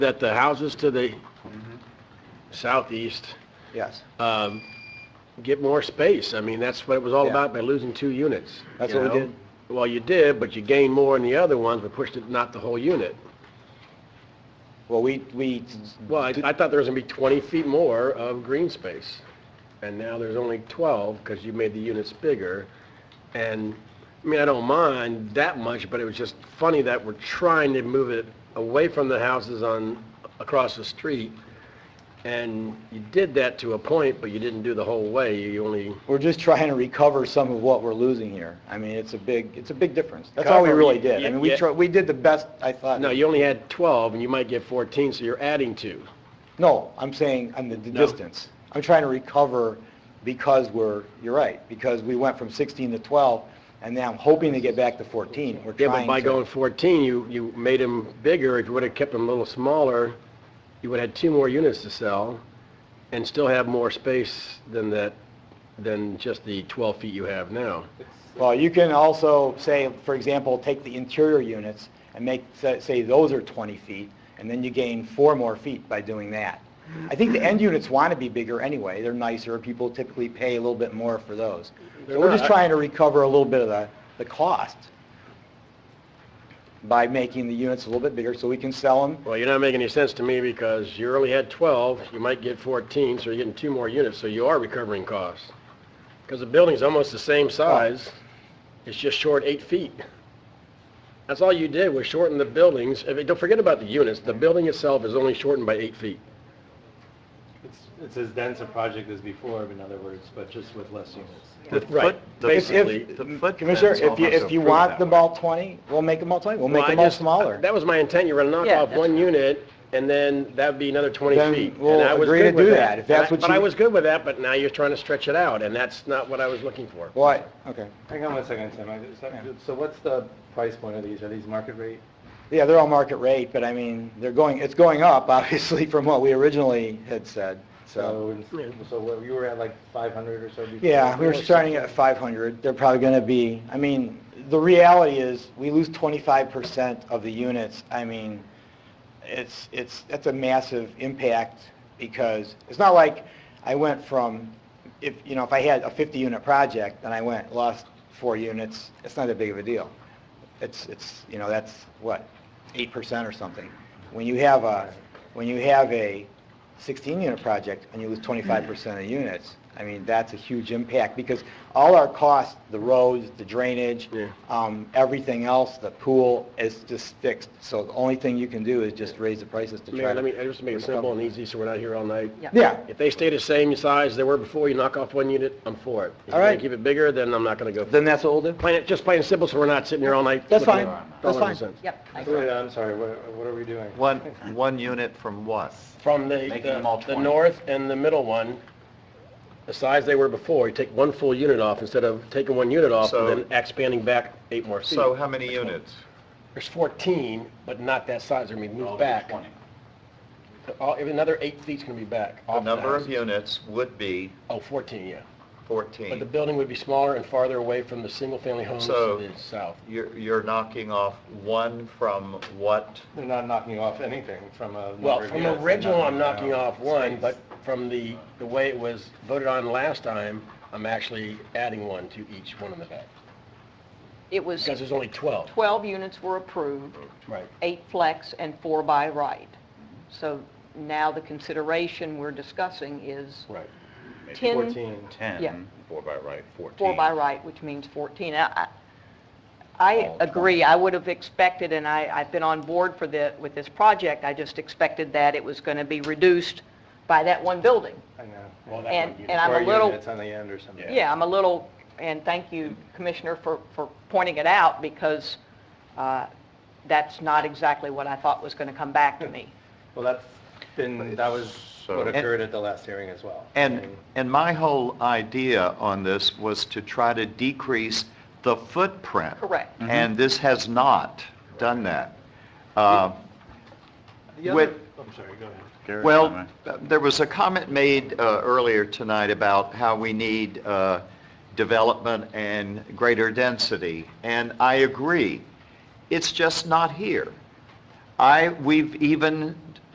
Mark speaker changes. Speaker 1: that the houses to the southeast
Speaker 2: Yes,
Speaker 1: um, get more space. I mean, that's what it was all
Speaker 2: Yeah.
Speaker 1: about by losing two units.
Speaker 2: That's
Speaker 1: you
Speaker 2: what we
Speaker 1: know?
Speaker 2: did.
Speaker 1: Well, you did, but you gained more in the other ones, but pushed it not the whole unit.
Speaker 2: well, we, we.
Speaker 1: Well, I, I thought there was gonna be 20 feet more of green space, and now there's only 12, because you made the units bigger. And, I mean, I don't mind that much, but it was just funny that we're trying to move it away from the houses on, across the street, and you did that to a point, but you didn't do the whole way, you only...
Speaker 2: We're just trying to recover some of what we're losing here. I mean, it's a big, it's a big difference. That's all we
Speaker 1: Cover,
Speaker 2: really did.
Speaker 1: yeah,
Speaker 2: I mean, we
Speaker 1: yeah.
Speaker 2: tried, we did the best, I thought.
Speaker 1: No, you only had 12, and you might get 14, so you're adding two.
Speaker 2: No, I'm saying on the d-
Speaker 1: No.
Speaker 2: distance. I'm trying to recover because we're, you're right, because we went from 16 to 12, and now I'm hoping to get back to 14. We're
Speaker 1: Yeah, but
Speaker 2: trying
Speaker 1: by
Speaker 2: to-
Speaker 1: going 14, you, you made them bigger. If you would have kept them a little smaller, you would have had two more units to sell and still have more space than that, than just the 12 feet you have now.
Speaker 2: Well, you can also say, for example, take the interior units and make, say- say those are 20 feet, and then you gain four more feet by doing that. I think the end units want to be bigger anyway, they're nicer, people typically pay a little bit more for those. So we're just
Speaker 1: not.
Speaker 2: trying to recover a little bit of the, the cost by making the units a little bit bigger so we can sell them.
Speaker 1: Well, you're not making any sense to me because you only had 12, you might get 14, so you're getting two more units, so you are recovering costs. Because the building's almost the same size, it's just short eight feet. That's all you did was shorten the buildings. If- Don't forget about the units, the building itself is only shortened by eight feet.
Speaker 3: It's, it's as dense a project as before, in other words, but just with less units.
Speaker 4: The
Speaker 1: Right,
Speaker 4: foot- the-
Speaker 2: If-
Speaker 1: basically.
Speaker 2: if-
Speaker 4: the footprint
Speaker 2: Commissioner, if you,
Speaker 4: almost
Speaker 2: if you
Speaker 4: improved
Speaker 2: want
Speaker 4: that
Speaker 2: them
Speaker 4: way.
Speaker 2: all 20, we'll make them all 20, we'll make
Speaker 1: Well, I
Speaker 2: them all
Speaker 1: just-
Speaker 2: smaller.
Speaker 1: That was my intent, you were gonna knock
Speaker 5: Yeah,
Speaker 1: off
Speaker 5: that's
Speaker 1: one unit, and then that'd be another 20
Speaker 2: Then
Speaker 1: feet. And
Speaker 2: we'll
Speaker 1: I was
Speaker 2: agree to
Speaker 1: good with
Speaker 2: do that, if that's
Speaker 1: And I-
Speaker 2: what
Speaker 1: But I
Speaker 2: you-
Speaker 1: was good with that, but now you're trying to stretch it out, and that's not what I was looking for.
Speaker 2: Why, okay.
Speaker 3: Hang on one second, Tim. I- is that-
Speaker 2: Yeah.
Speaker 3: So what's the price point of these? Are these market rate?
Speaker 2: Yeah, they're all market rate, but I mean, they're going, it's going up, obviously, from what we originally had said, so.
Speaker 3: So, so what, you were at like 500 or so before?
Speaker 2: Yeah, we were starting at 500, they're probably going to be, I mean, the reality is, we lose 25% of the units, I mean, it's, it's, that's a massive impact, because it's not like I went from, if, you know, if I had a 50-unit project, and I went, lost four units, it's not that big of a deal. It's, it's, you know, that's, what, 8% or something. When you have a, when you have a 16-unit project and you lose 25% of units, I mean, that's a huge impact because all our costs, the roads, the drainage,
Speaker 1: Yeah.
Speaker 2: um, everything else, the pool is just fixed. So the only thing you can do is just raise the prices to try
Speaker 1: Mayor, let me, I
Speaker 2: to...
Speaker 1: just make it simple and easy, so we're not here all night.
Speaker 5: Yeah.
Speaker 2: Yeah,
Speaker 1: If they stay the same size they were before, you knock off one unit, I'm for it. If
Speaker 2: All
Speaker 1: you're gonna
Speaker 2: right.
Speaker 1: keep it bigger, then I'm not gonna go. for it.
Speaker 2: then that's what we'll do.
Speaker 1: Plain, and- just plain and simple, so we're not sitting here all night.
Speaker 2: That's
Speaker 1: looking
Speaker 2: fine.
Speaker 1: at dollars
Speaker 2: That's
Speaker 1: and
Speaker 2: fine.
Speaker 1: cents.
Speaker 5: Yep, I
Speaker 3: Wait,
Speaker 5: agree.
Speaker 3: I'm sorry, what, what are we doing?
Speaker 4: One, one unit from what?
Speaker 1: From the,
Speaker 4: Making them all
Speaker 1: the, the
Speaker 4: 20.
Speaker 1: north and the middle one, the size they were before, you take one full unit off instead of taking one unit off
Speaker 4: So-
Speaker 1: and then expanding back eight more feet.
Speaker 4: So how many units?
Speaker 1: There's 14, but not that size, they're gonna be
Speaker 4: Oh,
Speaker 1: moved back. All- if Another eight feet's gonna be back.
Speaker 4: The
Speaker 1: off
Speaker 4: number of
Speaker 1: houses.
Speaker 4: units would be
Speaker 1: Oh, 14, yeah. But the
Speaker 4: 14.
Speaker 1: building would be smaller and farther away from the single-family homes
Speaker 4: So-
Speaker 1: to the south.
Speaker 4: You're, you're knocking off one from what?
Speaker 3: They're not knocking off anything from a number
Speaker 1: Well,
Speaker 3: of
Speaker 1: from
Speaker 3: units. They're
Speaker 1: original, I'm
Speaker 4: uh,
Speaker 1: knocking
Speaker 3: down
Speaker 1: off one,
Speaker 3: space.
Speaker 1: but from the, the way it was voted on last time, I'm actually adding one to each one in the back.
Speaker 5: It was,
Speaker 1: Because there's only 12.
Speaker 5: 12 units were approved,
Speaker 1: Right.
Speaker 5: eight flex and four by right. So now the consideration we're discussing is
Speaker 1: Right.
Speaker 5: 10
Speaker 3: 14.
Speaker 5: Yeah.
Speaker 6: 10, four by right, 14.
Speaker 5: four by right, which means 14. I- I- I
Speaker 6: All
Speaker 5: agree, I would have expected, and I, I've been on board for the, with this project, I just expected that it was going to be reduced by that one building.
Speaker 3: I know.
Speaker 1: Well, that
Speaker 5: And,
Speaker 1: one unit.
Speaker 5: and I'm a
Speaker 3: Four
Speaker 5: little...
Speaker 3: units on the end or something.
Speaker 5: Yeah, I'm a little, and thank you, Commissioner, for, for pointing it out, because uh, that's not exactly what I thought was going to come back to me.
Speaker 3: Well, that's been, that was
Speaker 4: So-
Speaker 3: what occurred at the last hearing as well. I
Speaker 4: And,
Speaker 3: mean,
Speaker 4: and my whole idea on this was to try to decrease the footprint.
Speaker 5: Correct. Mhm.
Speaker 4: And this has not done that. Uh,
Speaker 3: The other,
Speaker 4: With-
Speaker 3: I'm sorry, go ahead.
Speaker 6: Gary,
Speaker 4: Well,
Speaker 6: comment?
Speaker 4: uh, there was a comment made uh, earlier tonight about how we need uh, development and greater density, and I agree. It's just not here. I, we've even